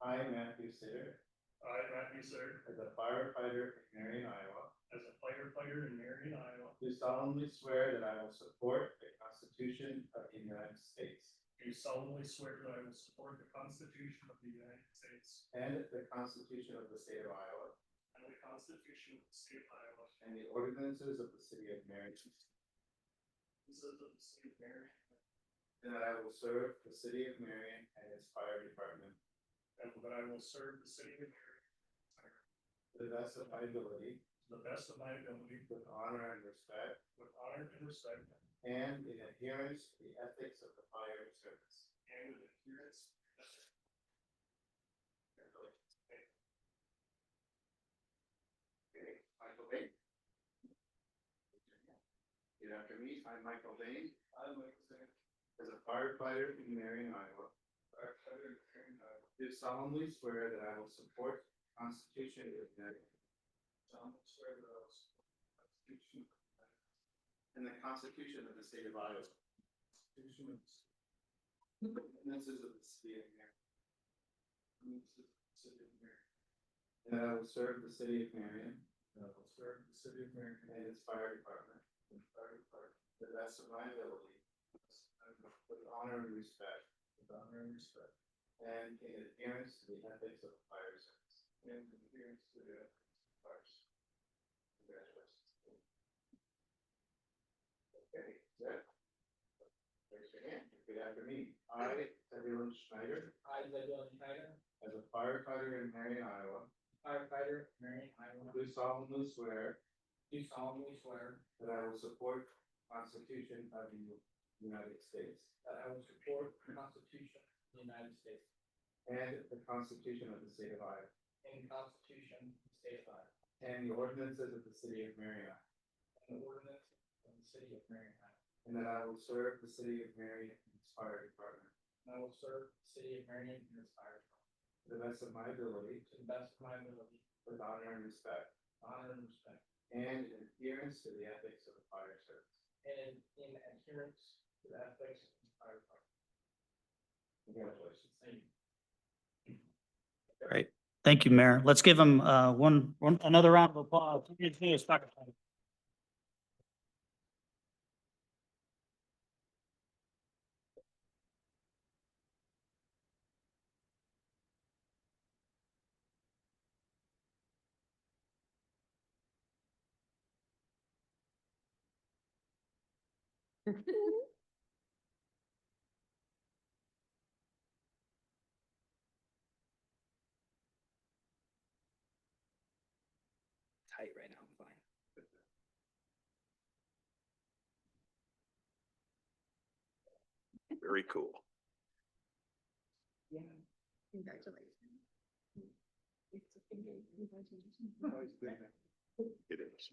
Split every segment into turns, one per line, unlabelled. I, Matthew Sitter,
I, Matthew Sitter,
as a firefighter in Marion, Iowa,
as a firefighter in Marion, Iowa,
do solemnly swear that I will support the Constitution of the United States
do solemnly swear that I will support the Constitution of the United States
and the Constitution of the State of Iowa
and the Constitution of the State of Iowa,
and the ordinances of the City of Marion,
and the of the State of Marion,
and that I will serve the City of Marion and its fire department
and that I will serve the city of Marion
to the best of my ability,
to the best of my ability,
with honor and respect,
with honor and respect,
and in adherence to the ethics of the fire service.
and with adherence.
Okay, Michael Bain. Good after me, I'm Michael Bain.
I, Michael Sitter,
As a firefighter in Marion, Iowa,
firefighter in Marion, Iowa,
do solemnly swear that I will support the Constitution of the United States
solemnly swear that I will support the Constitution of the United States
and the Constitution of the State of Iowa,
Constitution of the State
and the ordinances of the City of Marion,
the City of Marion,
and that I will serve the City of Marion
and I will serve the city of Marion
and its fire department
and the fire department
to the best of my ability, with honor and respect,
with honor and respect,
and in adherence to the ethics of the fire service.
and with adherence to the ethics of fire service.
Congratulations. Okay, Zach. Raise your hand.
Repeat after me. I, Zebulon Schneider,
I, Zebul Schneider,
as a firefighter in Marion, Iowa,
firefighter, Marion, Iowa,
do solemnly swear
do solemnly swear
that I will support the Constitution of the United States
that I will support the Constitution of the United States
and the Constitution of the State of Iowa
and the Constitution of the State of Iowa
and the ordinances of the City of Marion,
and the ordinance of the City of Marion, Iowa.
and that I will serve the City of Marion and its fire department
And I will serve the City of Marion and its fire department
to the best of my ability,
to the best of my ability,
with honor and respect,
honor and respect,
and in adherence to the ethics of the fire service.
and in adherence to the ethics of the fire department.
Congratulations.
Thank you.
Thank you, Mayor. Let's give him uh, one, one, another round of applause. Yes, yes, Dr. Snyder.
Tight right now, I'm fine.
Very cool.
Congratulations.
It is.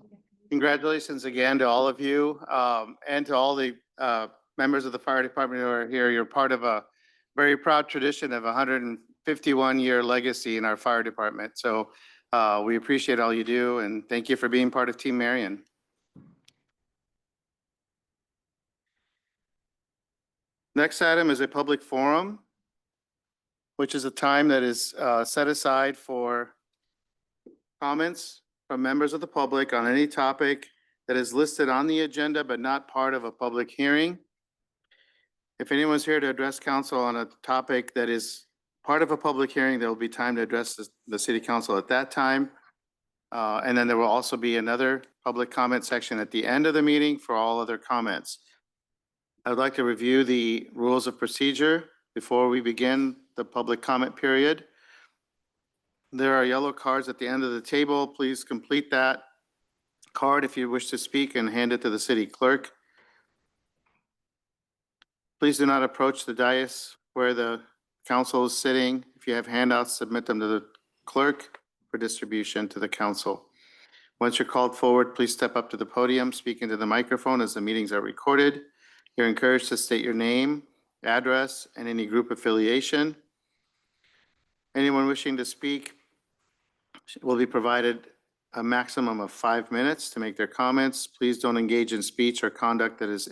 Congratulations again to all of you, um, and to all the, uh, members of the fire department who are here. You're part of a very proud tradition of a hundred and fifty-one year legacy in our fire department. So, uh, we appreciate all you do and thank you for being part of Team Marion. Next item is a public forum, which is a time that is, uh, set aside for comments from members of the public on any topic that is listed on the agenda but not part of a public hearing. If anyone's here to address council on a topic that is part of a public hearing, there will be time to address the, the city council at that time. Uh, and then there will also be another public comment section at the end of the meeting for all other comments. I'd like to review the rules of procedure before we begin the public comment period. There are yellow cards at the end of the table. Please complete that card if you wish to speak and hand it to the city clerk. Please do not approach the dais where the council is sitting. If you have handouts, submit them to the clerk for distribution to the council. Once you're called forward, please step up to the podium, speak into the microphone as the meetings are recorded. You're encouraged to state your name, address, and any group affiliation. Anyone wishing to speak will be provided a maximum of five minutes to make their comments. Please don't engage in speech or conduct that is